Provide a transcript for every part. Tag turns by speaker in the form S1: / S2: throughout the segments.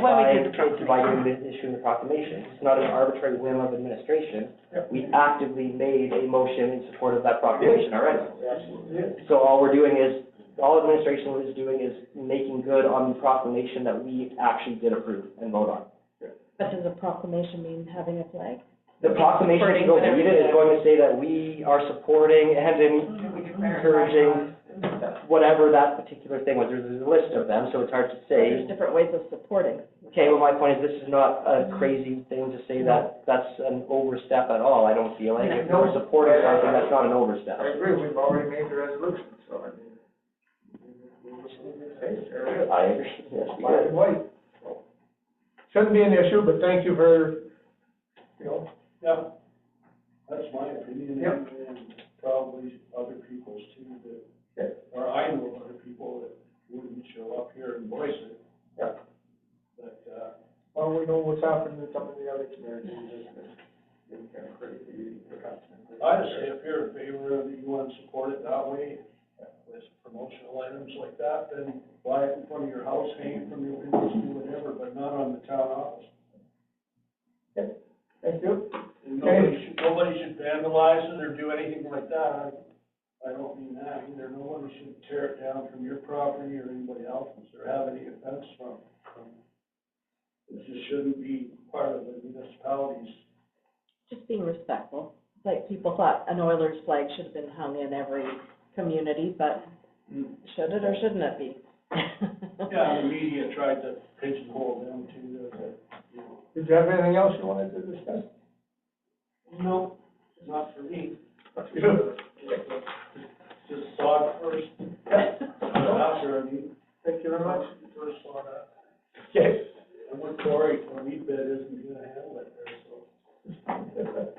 S1: why we did the
S2: assigned to
S1: proclamation.
S2: providing the issue of the proclamation. It's not an arbitrary whim of administration.
S3: Yep.
S2: We actively made a motion in support of that proclamation already.
S3: Absolutely.
S2: So all we're doing is, all administration is doing is making good on the proclamation that we actually did approve and vote on.
S4: But does a proclamation mean having a flag?
S2: The proclamation, if you go read it, is going to say that we are supporting and encouraging whatever that particular thing was. There's there's a list of them, so it's hard to say.
S4: There's different ways of supporting.
S2: Okay, well, my point is, this is not a crazy thing to say that that's an overstep at all, I don't feel like. If
S3: No.
S2: we're supporting something, that's not an overstep.
S3: I agree, we've already made the resolution, so I mean. we- we- we- hey, there it is.
S2: I agree, yes,
S3: Black and white. Shouldn't be an issue, but thank you for, you know,
S5: Yeah, that's my opinion,
S3: Yep.
S5: and and probably other people's too, that, or I know of other people that wouldn't show up here and voice it.
S3: Yep.
S5: But, uh,
S3: well, we know what's happened in some of the other communities. It's been crazy, perhaps.
S5: I'd say if you're in favor of, you want to support it that way, with promotional items like that, then buy it in front of your house, hang it from your windows, do whatever, but not on the town office.
S3: Thank you.
S5: And nobody should, nobody should vandalize it or do anything like that. I I don't mean that either. Nobody should tear it down from your property or anybody else's or have any offense from. from- It just shouldn't be part of the municipality's
S4: Just being respectful. Like people thought an Oilers flag should have been hung in every community, but should it or shouldn't it be?
S5: Yeah, the media tried to pigeonhole them to, the- you know,
S3: Did you have anything else you wanted to discuss?
S5: no, not for me.
S3: Good.
S5: Just saw it first, after, I mean,
S3: Thank you very much.
S5: first saw that.
S3: Yes.
S5: And what Cory, Cory bid isn't gonna handle it there, so.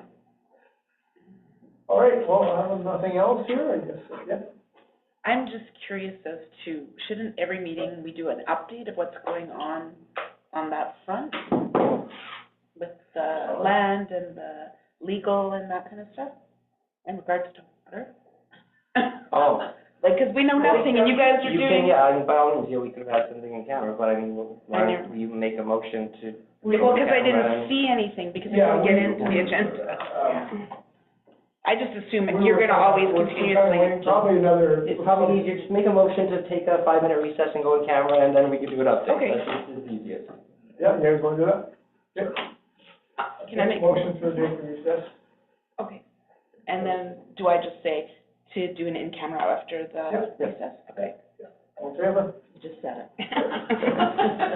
S3: All right, well, I have nothing else here, I guess, yeah.
S6: I'm just curious as to, shouldn't every meeting we do an update of what's going on, on that front? With the land and the legal and that kind of stuff, in regards to water?
S2: Oh.
S6: Like, 'cause we know nothing, and you guys are
S2: You
S6: doing,
S2: can, yeah, I mean, by all means, yeah, we could have had something in camera, but I mean,
S6: I
S2: why
S6: know.
S2: don't you make a motion to?
S6: well, 'cause I
S2: Camera.
S6: didn't see anything, because we
S3: Yeah,
S6: didn't get
S3: we-
S6: into the agenda, yeah. I just assume
S3: We
S6: you're
S3: were
S6: gonna
S3: kinda-
S6: always
S3: we're kinda waiting
S6: continuously,
S3: Probably another.
S2: It's probably easier, just make a motion to take a five-minute recess and go in camera, and then we can do an update.
S6: Okay.
S2: That's just the easiest.
S3: Yeah, you guys wanna do that? Yep.
S6: Uh, can I make?
S3: Motion for the recess.
S6: Okay. And then, do I just say to do an in-camera after the
S3: Yep.
S6: recess? Okay.
S3: All in favor?
S4: You just said it.